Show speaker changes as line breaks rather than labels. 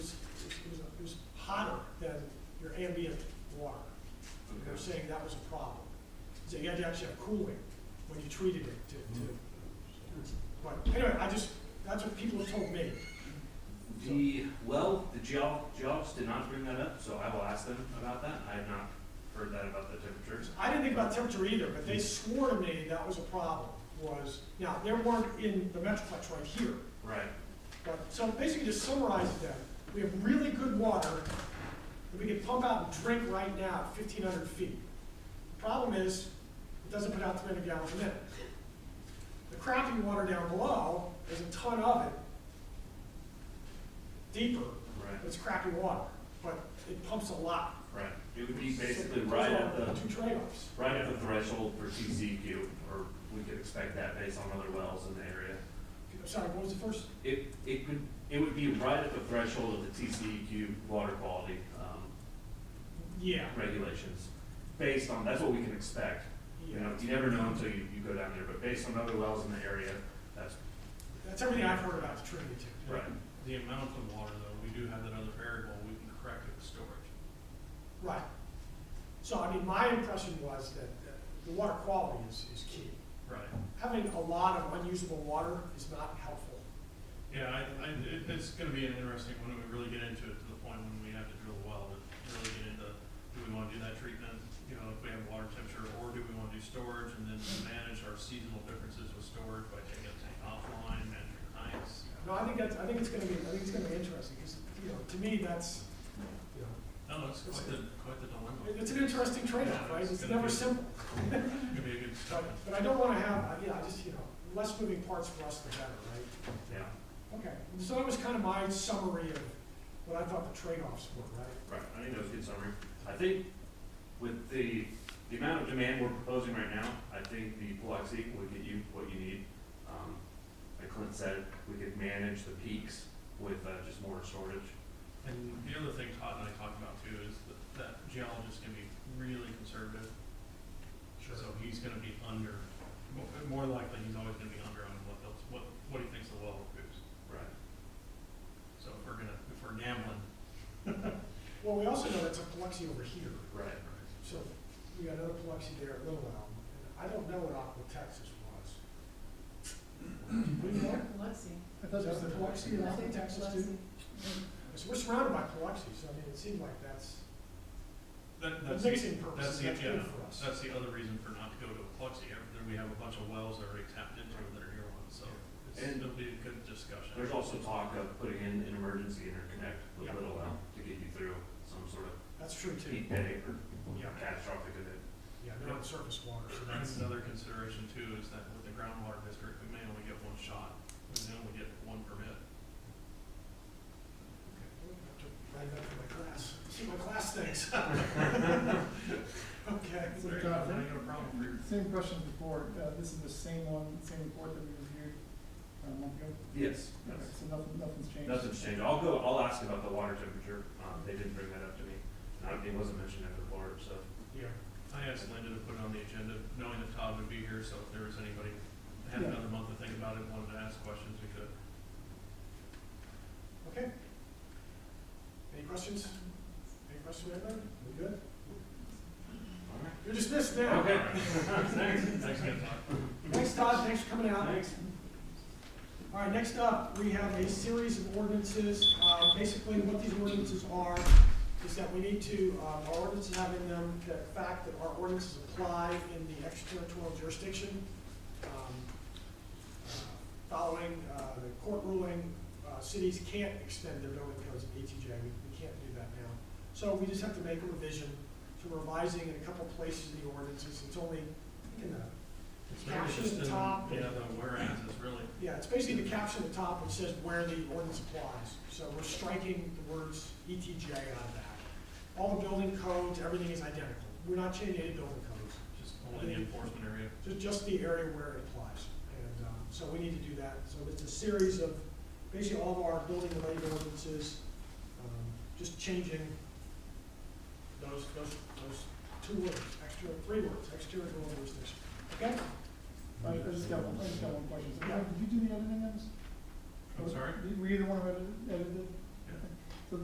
ambient water. And They were saying that was a problem. So you had to actually have cooling when you treated it to, to, but anyway, I just, that's what people have told me.
The, well, the geol- geologists did not bring that up, so I will ask them about that. I have not heard that about the temperatures.
I didn't think about temperature either, but they swore to me that was a problem, was, now, they weren't in the Metroplex right here,
Right.
but, so basically to summarize it then, we have really good water that we can pump out and drink right now at fifteen hundred feet. The Problem is, it doesn't put out three hundred gallons a minute. The crappy water down below, there's a ton of it, deeper,
Right,
it's crappy water, but it pumps a lot.
right. It would be
So
basically
those
right
are
at the,
Two trade-offs.
right at the threshold for TCEQ, or we could expect that based on other wells in the area.
Sorry, what was the first?
It, it could, it would be right at the threshold of the TCEQ water quality, um,
Yeah.
regulations. Based on, that's what we can expect. You know, you never know until you, you go down there, but based on other wells in the area, that's
That's everything I've heard about the Trinity too.
right.
The amount of water, though, we do have that other variable we can correct with storage.
Right. So, I mean, my impression was that uh, the water quality is, is key.
Right.
Having a lot of unusable water is not helpful.
Yeah, I, I, it, it's gonna be an interesting one when we really get into it to the point when we have to drill a well, but really get into, do we wanna do that treatment? You know, if we have water temperature, or do we wanna do storage and then manage our seasonal differences with storage by taking a tank offline, managing tanks?
No, I think that's, I think it's gonna be, I think it's gonna be interesting, 'cause, you know, to me, that's, you know,
No, it's quite the, quite the dilemma.
it- it's an interesting trade-off, right? It's never simple.
It's gonna be a good
But,
discussion.
but I don't wanna have, uh, yeah, I just, you know, less moving parts for us, the better, right?
Yeah,
Okay, so that was kind of my summary of what I thought the trade-offs were, right?
right. I think that was a good summary. I think with the, the amount of demand we're proposing right now, I think the Biloxi would get you what you need. Um, Like Clint said, we could manage the peaks with uh, just more storage.
And the other thing Todd and I talked about too is that, that geologist can be really conservative. So he's gonna be under, mo- more likely, he's always gonna be under on what else, what, what he thinks the well will produce.
Right.
So if we're gonna, if we're gambling.
Well, we also know that's a Biloxi over here,
Right.
so we got another Biloxi there at Little Elm, and I don't know what Aqua Texas was. Do we know?
Lexi.
Is that the Biloxi and Aqua Texas too? So we're surrounded by Biloxi, so I mean, it seemed like that's,
That,
for
that's, the-
mixing
that's
purposes,
the,
that's
yeah,
good for us.
that's the other reason for not to go to Biloxi. Ever- There we have a bunch of wells already tapped into that are near one, so it's,
And-
it'll be a good discussion.
There's also talk of putting in an emergency interconnect with
Yeah.
Little Elm to get you through some sort of
That's true too.
peak day or
Yeah,
catastrophic event.
yeah, they're on surface water, so
That's
that's,
another consideration too, is that with the groundwater district, we may only get one shot, we may only get one permit.
I have to write it up for my class, see what my class thinks. Okay.
So,
There you
Todd,
go. Now you got a problem for your
Same question before, uh, this is the same one, same report that we reviewed uh, a month ago?
Yes, yes.
Okay, So nothing, nothing's changed?
Nothing's changed. I'll go, I'll ask about the water temperature. Um, they didn't bring that up to me. And it wasn't mentioned in the report, so.
Yeah.
I asked Linda to put it on the agenda, knowing that Todd would be here, so if there was anybody that had
Yeah.
another month to think about it, wanted to ask questions, we could.
Okay. Any questions? Any questions, anybody? We good? You're dismissed now.
Okay.
Thanks, thanks again, Todd.
Thanks, Todd, thanks for coming out.
Thanks.
All right, next up, we have a series of ordinances. Uh, Basically, what these ordinances are is that we need to, um, our ordinances have in them the fact that our ordinances apply in the extraterritorial jurisdiction. Um, uh, Following uh, the court ruling, uh, cities can't extend their building codes at ETJ. We we can't do that now. So we just have to make a revision to revising in a couple places of the ordinances. It's only, I think in the
It's really
Caption
just
the
in-
top.
Yeah, the whereas is really,
yeah, it's basically the caption at the top which says where the ordinance applies. So we're striking the words ETJ out of that. All the building codes, everything is identical. We're not changing any building codes,
just only the enforcement area.
just, just the area where it applies. And, um, so we need to do that. So it's a series of, basically all of our building-related ordinances, um, just changing those, those, those two words, extra, three words, exterior jurisdiction. Okay?
I, I just got one, I just got one question. So,
Yeah.
Did you do the editing on this?
I'm sorry?
Did- Were either one of you edited?